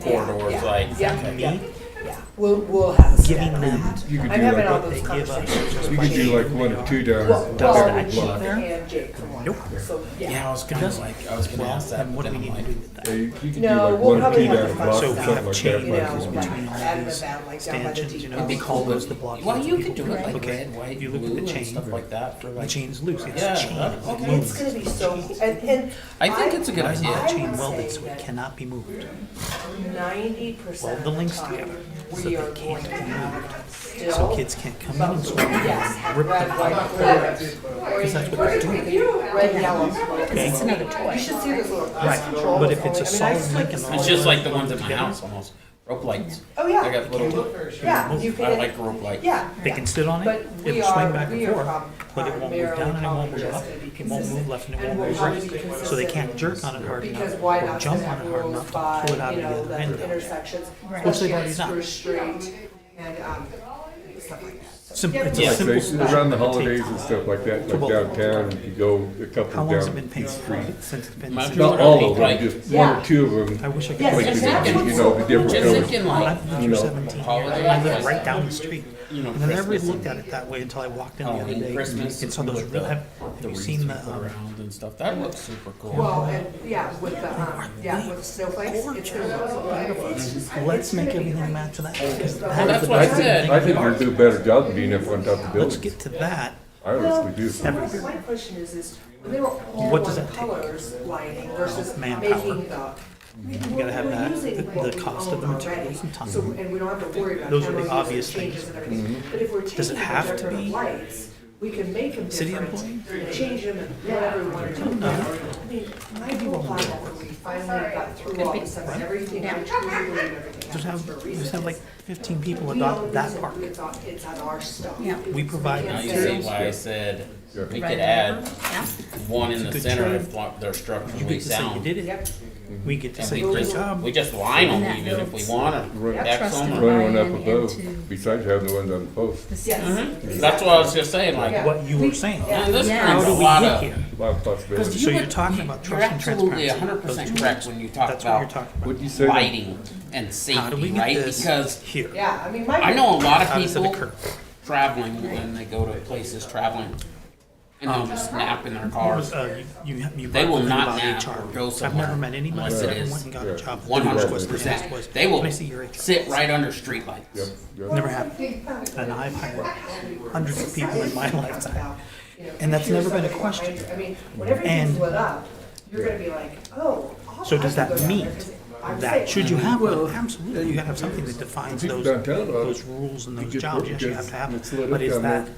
corridors, yeah, like. yeah, okay. yeah, yeah. We'll, we'll have a set Giving on them that. You could I'm do having like all what those they give us. conversations. You could do like one or two down Well, down well, the block. and Jake from one. Nope. So, Yeah, I yeah. was gonna like, I was gonna ask that, And but what are then we I'm gonna like, do with that? Yeah, you you could do No, like we'll one or probably two have down to the find So we block, something have like that. chain You Like, know, like between all of add them these about like down by the stanchions, you know, it'd be Those- depot. cool, those if- the block well, that you people could do can it like look at. red, white, If you look at the blue and chain, stuff like that for The like. chain's loose, it's Yeah, a chain. that- It's okay. It's loose. gonna be so, cool. and, and. I think it's a good It has idea. to I be chain would welded, say so it that- cannot be moved. ninety percent Weld of the the links time, together so we they are can't going to be have still. So kids can't come in and swim. Yes, have Rip the red, white, blue. Because that's what they're doing. Red, yellow, white. Okay. It's another toy. You should see this little. Right, but if it's a solid link and all It's just like the ones at my house almost, rope lights. Oh, yeah. I got little, Yeah, you I can, like rope lights. yeah. They can sit on But it, we it'll are- swing back we and are forth, prob- but it won't move down and it won't move primarily up. probably just It won't move left and it won't move probably be right. So they can't consistent. jerk on it hard Because enough why or not jump set on up it hard rules enough to by, pull it out you of the know, other the end. intersections, Right. Which they've especially on already Spruce Street and, um, stuff like that. Simple, it's Yeah. a Like simple they- step. around the It takes- holidays and stuff like To that, like both. downtown, you could go a How couple long's it been down each painted street. since it's been? My- since- Not all of them, Right. just one Yeah. or two of I them. wish I could. Yes, Like, point you to exactly. that. know, you know, the different Just colors. thinking like, I've lived You for know, 17 years. holiday I lived lights. right down the street. you know, And I never Christmas looked at and it that way until I walked in the other Halloween, day. Christmas. And saw those with real, the- have the you wreaths seen we the, put um, Around and stuff, that looks super cool. Well, and, yeah, with the, um, yeah, with snowflakes, it's gonna look so beautiful. um, let's make everything match that. because Well, that that's is what I the- said. I think we'd do a better job of being up on top of Let's buildings. get to that. I honestly do. Well, My question is, is when they were all What does one that take? Oh, colors lighting versus Manpower. making the. You gotta have that, the- the cost of the materials and time. So, and we don't have to worry about Those are the cameras obvious and changes things. Mm-hmm. and everything. But if we're Does it changing the have to decorative be lights, we can make them city different, employee? Oh. and change them and whatever we wanna do. I mean, my whole plan when we finally got through all this stuff and everything, I truly believe everything Just happens have, for a reason. just have like 15 people We all adopt that reason park. It's on, it's on our stuff. Yeah. We provide Now you see materials. why I said, we could Right. add Yeah. one in It's a the good center trade. if like, they're You structurally get to say you sound. did it. Yep. We get to And say we good just, job. we just line And them that even if we builds- wanna. Run- X Trust them and or- Run one up Ryan above, into- besides having the ones on the post. The Yes. same- exactly. That's what I was just saying, like, Yeah. What you were saying. man, this Yeah. How brings do a we lot get of. here? A lot of possibilities. So you're talking about You're trust and transparency. absolutely hundred Those percent two correct words. when you talk That's what you're about talking about. What'd you say? lighting and How do we safety, get right? this Because here? Yeah, I mean, my. I know a lot of How does it people occur? traveling when they go to places traveling and they'll just nap in their cars. Uh, you, you- you They brought will the thing not about nap HR. or go I've somewhere never met anybody unless that it ever is went and got yeah, a job. One hundred That percent. was, They will Can I see your HR? sit right under streetlights. Yep, yep. Never happened. And I've hired hundreds of people in my lifetime. And that's never been a question. I mean, when everything's And- lit up, you're gonna be like, oh. I'll- So I does can that go down meet there 'cause I'm that? safe." Should you have one? Absolutely. You gotta have something that defines People those, downtown, uh, those rules and you those get jobs. Yes, you workers, have to have it's lit them. up But is down that, there.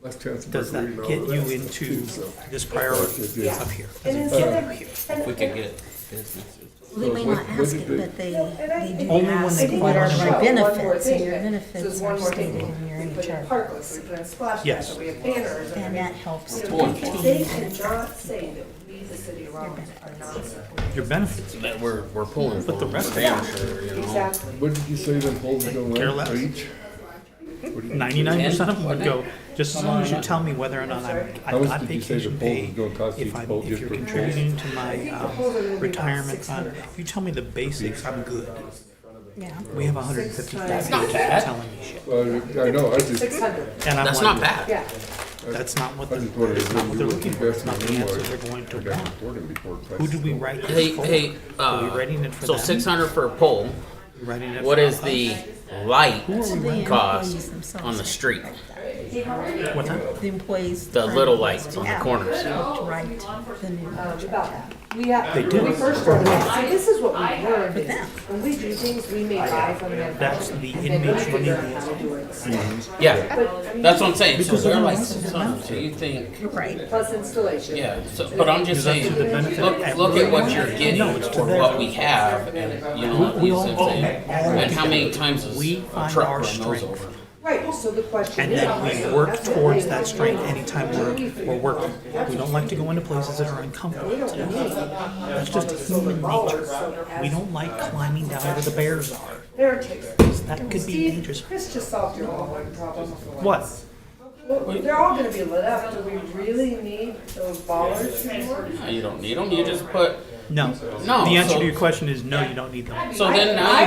Last chance for does that free and all get that you stuff, into too, so. this priority Yeah. up here? And Does it instead get of- over here? and- If we could and- get businesses. We may What- not what ask did it, they- but they, they do Only when ask they I think what follow are the my show, benefits, and your So there's benefits one are more stated thing, in your we put in HR. parklets, we put in splash Yes. pads, we have banners. And that helps to Boy. maintain They benefits. cannot say that we, the city of Rollins, are not supporting. Your benefits. That we're, we're pulling But the rest of Vanisher, you know. Exactly. What did you say them poles are gonna Care last less. for each? Ninety-nine percent of them would go, just as long as you tell me whether or not I'm, How I've much got did you say the vacation poll pay. was gonna cost each If I'm, poll if just you're for poll? contributing to my, the polls are gonna be um, about retirement fund, $600. if you tell me the basics, I'm good. Yeah. We have hundred and fifty That's thousand not people bad. telling me shit. Well, uh, I know, I just, Six hundred, And I'm That's like, not bad. yeah. That's not what I they're, just wondered that's if not what you they're would looking for, it's invest not the in more. answers they're going to I got want. reported before prices Who do we go up. write Hey, this for? hey, Are we uh, writing it for so them? six hundred for a pole. Are we writing it What for is us? the So light the employees cost themselves on the are street? like that. What time? The employees. The try little to lights on the act corners. Right, the new Um, contract. about that. We have, They do. when we first started, so this is what we learned, is when we do things, we may buy from them. That's the and then we inmates running figure out the how to do it. Mhm. But, Yeah, I mean, that's what I'm saying. So Because they're of like the six amount. hundred. So you think? Right. Plus installation. Yeah, so, but I'm just Is that to saying, the benefit look, of look at what everyone? you're getting No, it's to for their what we have, and, you know, We you all- see what I'm saying? all And how many times is We a find truck our run those strength. over? Right, so the question And is. then we work that's the towards thing. that strength anytime we're, we're working. We don't like to go into places that are uncomfortable. We don't need That's just human nature. We don't like climbing down where the bears are. There it takes. That could be Steve, dangerous. Chris just solved your all one problem. What? Well, they're all gonna be lit up, do we really need those ballers anymore? No, You don't need them, you just put, No. No, The answer so- to your question is no, you don't need them. so then now you